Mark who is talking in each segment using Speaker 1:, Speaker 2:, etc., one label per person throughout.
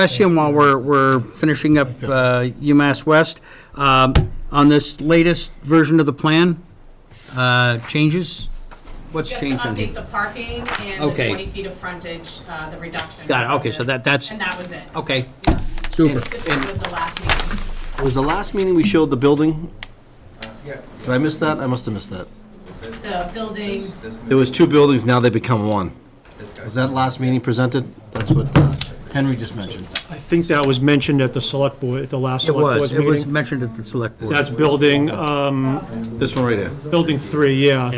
Speaker 1: Question while we're, we're finishing up uh, UMass West. Um, On this latest version of the plan, uh, changes? What's
Speaker 2: Just to
Speaker 1: changed on
Speaker 2: update
Speaker 1: here?
Speaker 2: the parking and the
Speaker 1: Okay.
Speaker 2: 20 feet of frontage, uh, the reduction.
Speaker 1: Got it, okay, so that- that's- Oh.
Speaker 2: And that was it.
Speaker 1: Okay,
Speaker 3: Super.
Speaker 2: This was the last meeting.
Speaker 4: Was the last meeting we showed the building? Did I miss that? I must have missed that.
Speaker 2: The building,
Speaker 4: There was two buildings, now they become one. Was that last meeting presented? That's what uh, Henry just mentioned.
Speaker 5: I think that was mentioned at the select board, at the last
Speaker 1: it
Speaker 5: select
Speaker 1: was,
Speaker 5: board
Speaker 1: it was
Speaker 5: meeting.
Speaker 1: mentioned at the select board.
Speaker 5: That's building, um,
Speaker 4: This one right here.
Speaker 5: building three, yeah.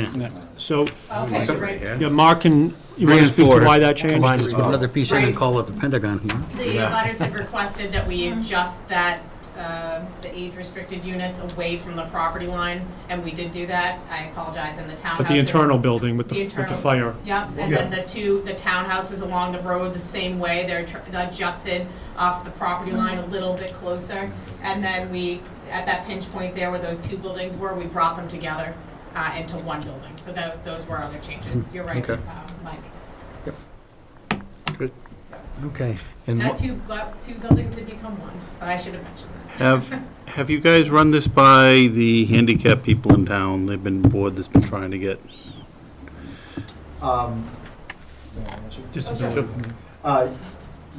Speaker 5: So,
Speaker 2: okay, you're right.
Speaker 5: yeah, Mark can, you want
Speaker 4: Three
Speaker 5: to
Speaker 4: and
Speaker 5: speak
Speaker 4: four.
Speaker 5: to why that changed?
Speaker 4: Combined
Speaker 1: Just put another piece in and
Speaker 2: Right.
Speaker 1: call it the Pentagon here.
Speaker 2: The letters have requested that we adjust that, uh, the age-restricted units away from the property line, and we did do that. I apologize, and the townhouses.
Speaker 5: But the internal building with
Speaker 2: The
Speaker 5: the, with the
Speaker 2: internal-
Speaker 5: fire.
Speaker 2: Yep, and then the two, the townhouses along the road, the same way, they're tr- they're adjusted off the property
Speaker 6: Mm-hmm.
Speaker 2: line a little bit closer. And then we, at that pinch point there where those two buildings were, we brought them together uh, into one building. So that, those were other changes. You're right, uh, Mike.
Speaker 1: Okay.
Speaker 2: That two, bu- two buildings did become one, so I should have mentioned that.
Speaker 7: Have, have you guys run this by the handicap people in town? They've been bored, that's been trying to get,
Speaker 5: Disability.
Speaker 6: Uh,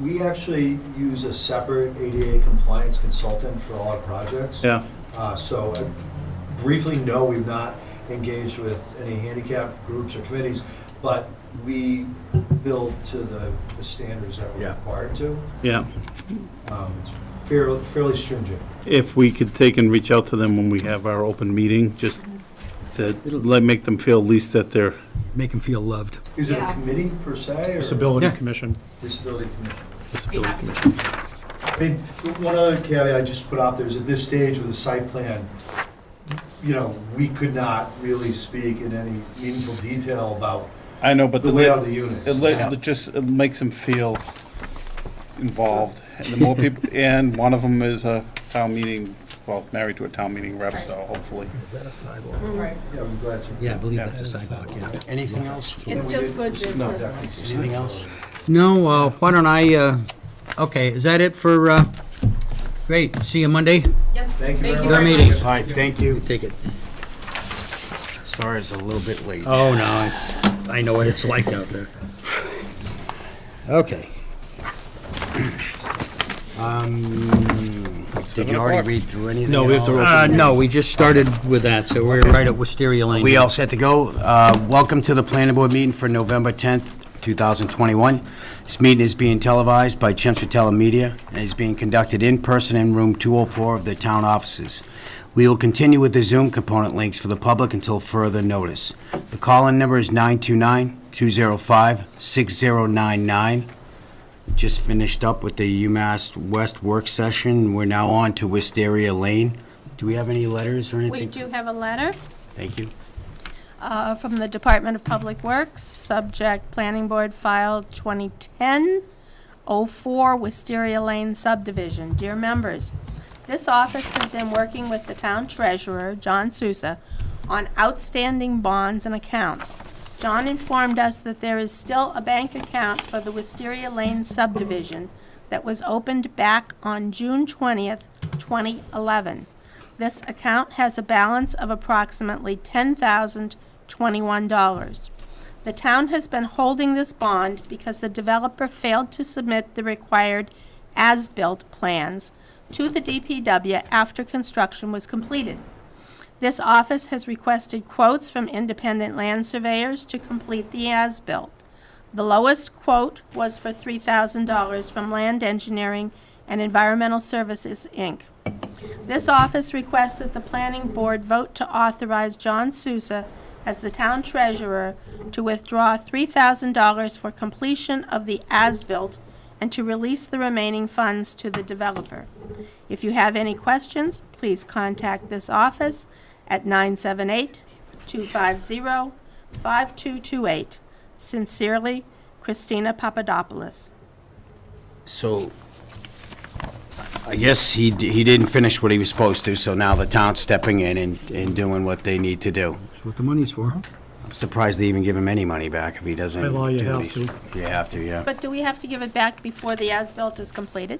Speaker 6: We actually use a separate ADA compliance consultant for all our projects.
Speaker 7: yeah,
Speaker 6: Uh, So I briefly, no, we've not engaged with any handicap groups or committees, but we build to the the standards that we're
Speaker 3: Yeah.
Speaker 6: required to.
Speaker 7: yeah.
Speaker 6: Um, it's fair- Fairly stringent.
Speaker 7: If we could take and reach out to them when we have our open meeting, just to let, make them feel at least that they're,
Speaker 1: Make them feel loved.
Speaker 6: Is it a
Speaker 2: Yeah.
Speaker 6: committee per se or?
Speaker 5: Disability
Speaker 1: Yeah.
Speaker 5: Commission.
Speaker 6: Disability commission.
Speaker 2: Be happy to.
Speaker 6: I mean, one other caveat I just put out there is at this stage with the site plan, you know, we could not really speak in any meaningful detail about
Speaker 7: I know, but.
Speaker 6: the layout of the units.
Speaker 7: It let, it just, it makes them feel involved, and the more people, and one of them is a town meeting, well, married to a town meeting rep, so hopefully.
Speaker 2: Right.
Speaker 6: Yeah, I'm glad you.
Speaker 1: Yeah, I believe that's a sidewalk, yeah.
Speaker 4: Anything else?
Speaker 8: It's just good business.
Speaker 4: Anything else?
Speaker 1: No, uh, why don't I, uh, okay, is that it for, uh, great, see you Monday?
Speaker 2: Yes.
Speaker 6: Thank you very
Speaker 1: much.
Speaker 2: very
Speaker 1: Meeting.
Speaker 2: much.
Speaker 4: All right, thank you.
Speaker 1: Take it.
Speaker 4: Sorry it's a little bit late.
Speaker 1: Oh, no, it's, I know what it's like out there. Okay.
Speaker 4: Did you already read through anything?
Speaker 1: No, we have to, uh, no, we just started with that, so we're right at Wisteria Lane.
Speaker 4: We all set to go. Uh, Welcome to the planning board meeting for November 10th, 2021. This meeting is being televised by Chester Telemedia and is being conducted in person in room 204 of the town offices. We will continue with the Zoom component links for the public until further notice. The call-in number is 929-205-6099. Just finished up with the UMass West work session. We're now on to Wisteria Lane. Do we have any letters or anything?
Speaker 8: We do have a letter
Speaker 4: Thank you.
Speaker 8: uh, from the Department of Public Works, subject Planning Board File 2010-04 Wisteria Lane subdivision. Dear members, this office has been working with the town treasurer, John Sousa, on outstanding bonds and accounts. John informed us that there is still a bank account for the Wisteria Lane subdivision that was opened back on June 20th, 2011. This account has a balance of approximately $10,021. The town has been holding this bond because the developer failed to submit the required as-built plans to the DPW after construction was completed. This office has requested quotes from independent land surveyors to complete the as-built. The lowest quote was for $3,000 from Land Engineering and Environmental Services, Inc. This office requests that the planning board vote to authorize John Sousa as the town treasurer to withdraw three thousand dollars for completion of the as-built and to release the remaining funds to the developer. If you have any questions, please contact this office at 978-250-5228. Sincerely, Christina Papadopoulos.
Speaker 4: So, I guess he, d- he didn't finish what he was supposed to, so now the town's stepping in and, and doing what they need to do.
Speaker 1: That's what the money's for.
Speaker 4: I'm surprised they even give him any money back if he doesn't.
Speaker 5: By law, you
Speaker 4: do what
Speaker 5: have
Speaker 4: he's-
Speaker 5: to.
Speaker 4: You have to, yeah.
Speaker 8: But do we have to give it back before the as-built is completed?